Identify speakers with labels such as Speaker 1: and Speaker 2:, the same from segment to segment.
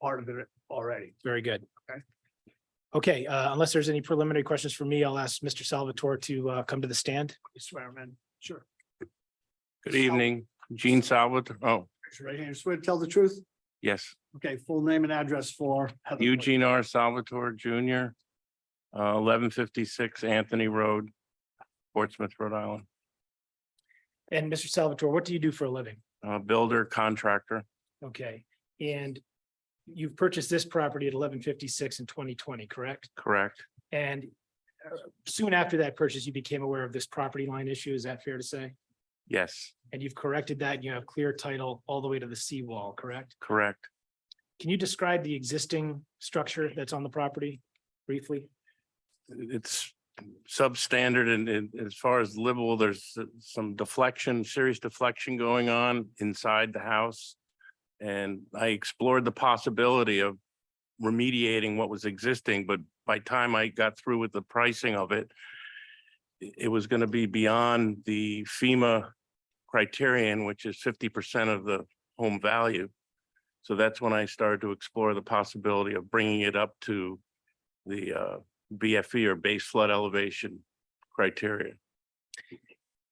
Speaker 1: part of it already.
Speaker 2: Very good.
Speaker 1: Okay.
Speaker 2: Okay, uh, unless there's any preliminary questions for me, I'll ask Mr. Salvatore to uh, come to the stand.
Speaker 1: You swear, man. Sure.
Speaker 3: Good evening, Gene Salvat, oh,
Speaker 1: Raise your right hand. Swear to tell the truth.
Speaker 3: yes,
Speaker 1: Okay, full name and address for. Heather.
Speaker 3: Eugene R. Salvatore Junior. Uh, eleven fifty-six Anthony Road, Portsmouth, Rhode Island,
Speaker 2: And Mr. Salvatore, what do you do for a living?
Speaker 3: uh, builder contractor,
Speaker 2: Okay, and you've purchased this property at eleven fifty-six in twenty twenty, correct?
Speaker 3: correct?
Speaker 2: And uh, soon after that purchase, you became aware of this property line issue. Is that fair to say?
Speaker 3: Yes,
Speaker 2: And you've corrected that. and You have clear title all the way to the seawall, correct?
Speaker 3: correct.
Speaker 2: Can you describe the existing structure that's on the property briefly?
Speaker 3: It's substandard and, and as far as livable, there's some deflection, serious deflection going on inside the house. And I explored the possibility of remediating what was existing, but by time I got through with the pricing of it, i- it was going to be beyond the FEMA criterion, which is fifty percent of the home value. So that's when I started to explore the possibility of bringing it up to the uh, BFE or base flood elevation criteria.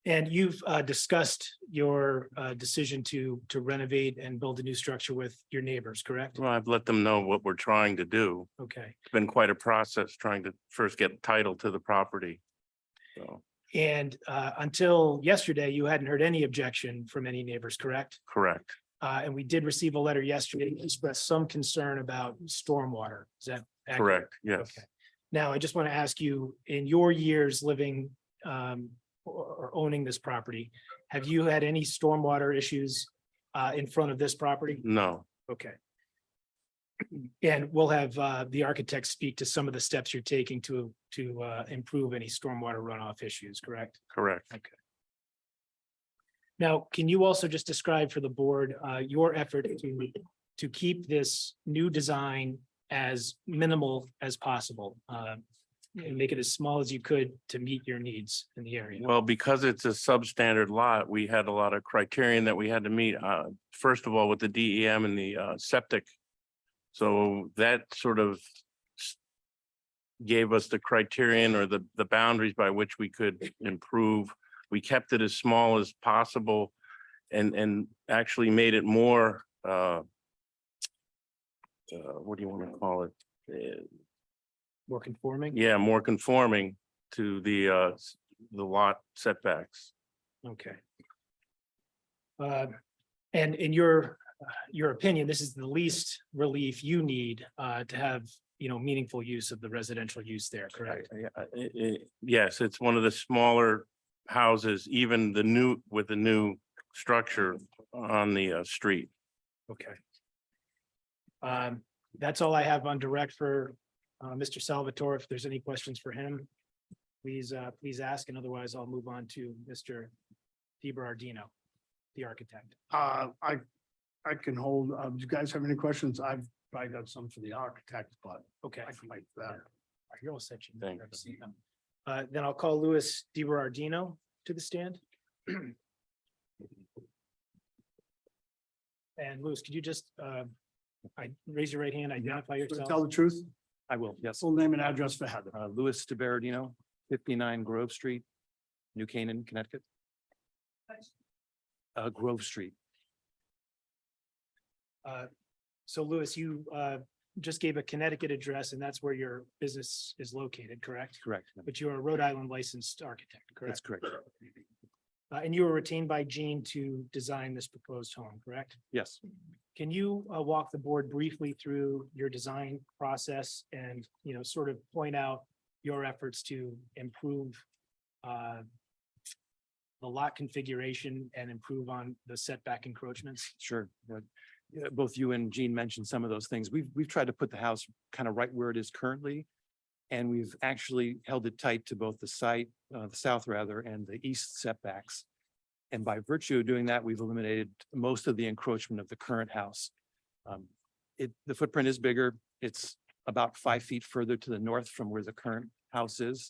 Speaker 2: And you've uh, discussed your uh, decision to to renovate and build a new structure with your neighbors, correct?
Speaker 3: Well, I've let them know what we're trying to do.
Speaker 2: Okay,
Speaker 3: It's been quite a process trying to first get title to the property. So,
Speaker 2: and uh, until yesterday, you hadn't heard any objection from any neighbors, correct?
Speaker 3: correct,
Speaker 2: Uh, And we did receive a letter yesterday that expressed some concern about stormwater. Is that? accurate?
Speaker 3: correct, yes.
Speaker 2: Okay. Now, I just want to ask you, in your years living um or or owning this property, have you had any stormwater issues uh in front of this property?
Speaker 3: No,
Speaker 2: Okay. And we'll have uh the architect speak to some of the steps you're taking to to uh improve any stormwater runoff issues, correct?
Speaker 3: correct.
Speaker 2: Now, can you also just describe for the board uh your effort to to keep this new design as minimal as possible? um, And make it as small as you could to meet your needs in the area.
Speaker 3: Well, because it's a substandard lot, we had a lot of criterion that we had to meet, uh, first of all, with the DEM and the, uh, septic. So that sort of s- gave us the criterion or the, the boundaries by which we could improve. We kept it as small as possible and, and actually made it more, uh, uh, what do you want to call it? Uh,
Speaker 2: More conforming?
Speaker 3: Yeah, more conforming to the, uh, s- the lot setbacks.
Speaker 2: Okay. Uh, And in your, uh, your opinion, this is the least relief you need uh, to have, you know, meaningful use of the residential use there, correct?
Speaker 3: I- I- I- I- Yes, it's one of the smaller houses, even the new, with the new structure on the uh, street.
Speaker 2: Okay. Um, That's all I have on direct for uh, Mr. Salvatore. If there's any questions for him, please, uh, please ask, and otherwise I'll move on to Mr. DiBardino, the architect.
Speaker 1: Uh, I, I can hold, uh, do you guys have any questions? I've probably got some for the architect, but
Speaker 2: Okay.
Speaker 1: I can wait for that.
Speaker 2: You're all set. you
Speaker 3: Thank
Speaker 2: never see them. Uh, then I'll call Louis DiBardino to the stand. And Louis, could you just, uh, I, raise your right hand, identify
Speaker 1: Swear to Tell
Speaker 2: yourself?
Speaker 1: the truth,
Speaker 4: I will, yes.
Speaker 1: full name and address for Heather.
Speaker 4: Uh, Louis DiBardino, fifty-nine Grove Street, New Canaan, Connecticut. Uh, Grove Street,
Speaker 2: So Louis, you, uh, just gave a Connecticut address and that's where your business is located, correct?
Speaker 4: correct.
Speaker 2: But you're a Rhode Island licensed architect,
Speaker 4: That's
Speaker 2: correct?
Speaker 4: correct.
Speaker 2: Uh, and you were retained by Gene to design this proposed home, correct?
Speaker 4: Yes,
Speaker 2: Can you uh, walk the board briefly through your design process and, you know, sort of point out your efforts to improve uh, the lot configuration and improve on the setback encroachments?
Speaker 4: sure. Yeah, yeah, Both you and Gene mentioned some of those things. We've, we've tried to put the house kind of right where it is currently. And we've actually held it tight to both the site, uh, the south rather, and the east setbacks. And by virtue of doing that, we've eliminated most of the encroachment of the current house. Um, It, the footprint is bigger. It's about five feet further to the north from where the current house is.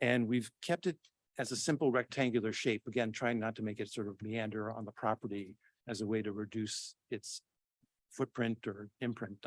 Speaker 4: And we've kept it as a simple rectangular shape, again, trying not to make it sort of meander on the property as a way to reduce its footprint or imprint on